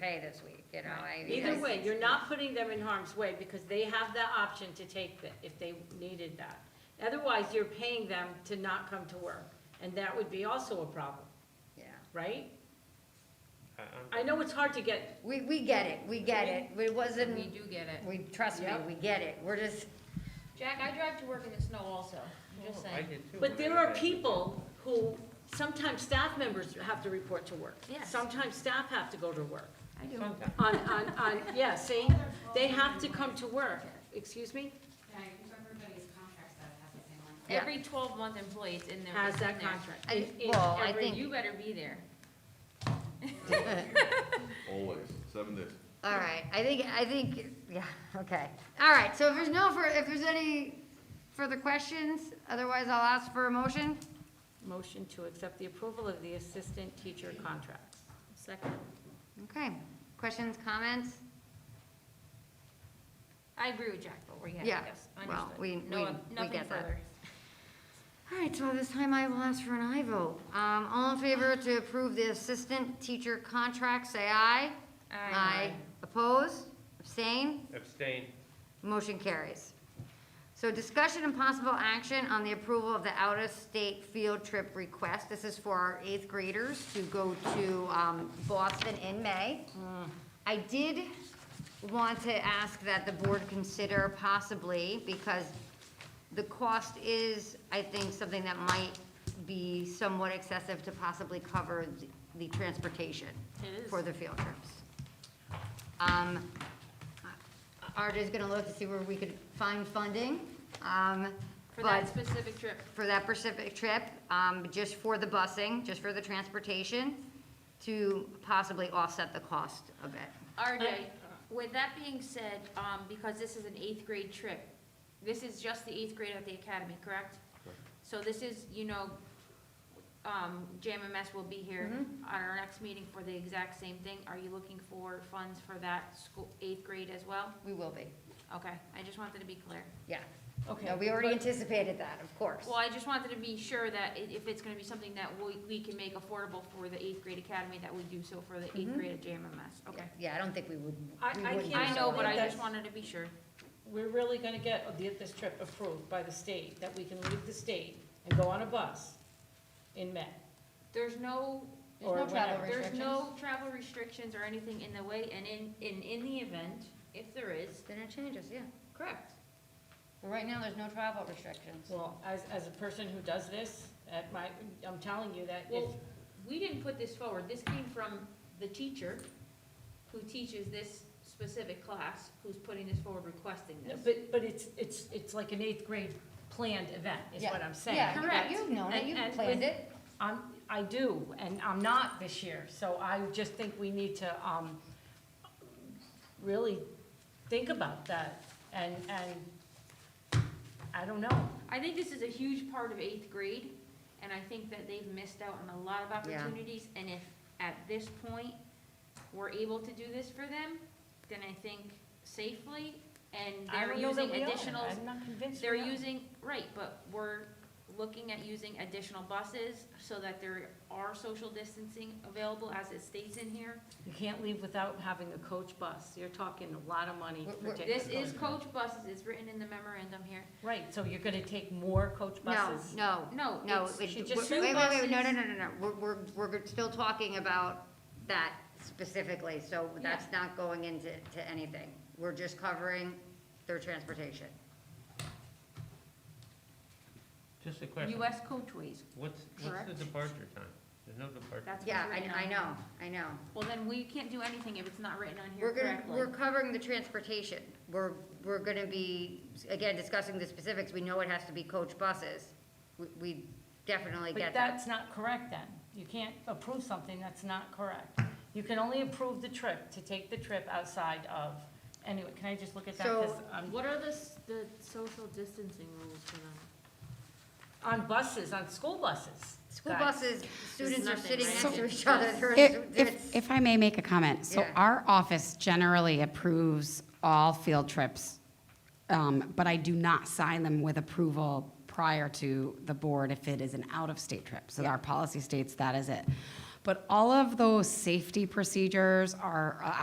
pay this week, you know, I. Either I- way, you're not putting them in harm's way because they have the option to take that if they needed that. Otherwise, you're paying them to not come to work, and that would be also a problem, Yeah, right? I- I'm- I know it's hard to get, we, we get it, we get it, it wasn't, We do get it. we, trust me, Yep. we get it, we're just, Jack, I drive to work in the snow also, I'm Oh, just I saying. did too but when there I are was back. people who, sometimes staff members have to report to work. Yes. Sometimes staff have to go to work. I do. Sometimes. On, on, on, yeah, see, they have to come to work, excuse me? Yeah, because everybody's contracts that have the same language. Yeah. Every twelve-month employee, it's in there. Has it's in that there. contract. I- It- it- well, I every- think- You better be there. Always, seven days. all right, I think, I think, yeah, okay. All right, so if there's no, fur- if there's any further questions, otherwise I'll ask for a motion. Motion to accept the approval of the assistant teacher contract. Second. Okay, questions, comments? I agree with Jack, but we have, Yeah, yes, well, understood. we- No, we- we nothing get that. further. All right, so this time I will ask for an aye vote. Um, all in favor to approve the assistant teacher contract, say aye. Oppose, abstain, Abstain. motion carries. So discussion and possible action on the approval of the out-of-state field trip request. This is for our eighth graders to go to, um, Boston in May. I did want to ask that the board consider possibly, because the cost is, I think, something that might be somewhat excessive to possibly cover the- the transportation It is. for the field trips. Um, Art is gonna look to see where we could find funding, um, For that but specific trip, for that specific trip, um, just for the busing, just for the transportation, to possibly offset the cost a bit. RJ, with that being said, um, because this is an eighth grade trip, this is just the eighth grade at the academy, correct? So this is, you know, um, JMMS will be here on our next meeting for the exact same thing. Are you looking for funds for that school, eighth grade as well? We will be, Okay, I just wanted to be clear. yeah. Okay. No, we already anticipated that, of course. Well, I just wanted to be sure that i- if it's gonna be something that we, we can make affordable for the eighth grade academy, that we do so for the eighth grade at JMMS, okay? Yeah, I don't think we would. I- we I wouldn't can't I do know, that. but I just wanted to be sure. We're really gonna get the- this trip approved by the state, that we can leave the state and go on a bus in May. There's no, There's no travel there's no travel restrictions or anything in the way, and in, in, in the event, if there is, Then it changes, yeah. correct. But Right now, there's no travel restrictions. Well, as, as a person who does this, at my, I'm telling you that if, Well, we didn't put this forward, this came from the teacher who teaches this specific class, who's putting this forward requesting this. but, but it's, it's, it's like an eighth grade planned event, is what I'm saying. Yeah, Correct. You've known it, And- you've and planned with- it. I'm, I do, and I'm not this year, so I just think we need to, um, really think about that, and, and, I don't know. I think this is a huge part of eighth grade, and I think that they've missed out on a lot of Yeah. opportunities, and if at this point, we're able to do this for them, then I think safely, and I they're don't know that using we are. additional I'm not convinced. They're we are. using, right, but we're looking at using additional buses so that there are social distancing available as it states in here. You can't leave without having a coach bus. You're talking a lot of money We're- for we're- taking. This is coach buses, it's written in the memorandum here. Right, so you're gonna take more coach No, buses? no, No, no. it's- it- She just wait, sued Wait, wait, wait, no, no, buses. no, no, no. We're, we're, we're still talking about that specifically, so that's not going into, to anything. We're just covering their transportation. Just a question. US coachways, What's, what's the Correct. departure time? There's no departure. that's what's Yeah, written I, I on. know, I know. Well, then we can't do anything if it's not written on here We're gonna, correctly. we're covering the transportation. We're, we're gonna be, again, discussing the specifics. We know it has to be coach buses. We, we definitely But get that. that's not correct then. You can't approve something that's not correct. You can only approve the trip, to take the trip outside of, anyway, can I just look at that? 'Cause So- I'm- What are the, the social distancing rules for them? On buses, on school buses. School guys. buses, students are nothing, sitting right? next to each other. They're- If, it's- if, if I may make a comment, so Yeah. our office generally approves all field trips, um, but I do not sign them with approval prior to the board if it is an out-of-state trip. So our policy states that is it. But all of those safety procedures are uh,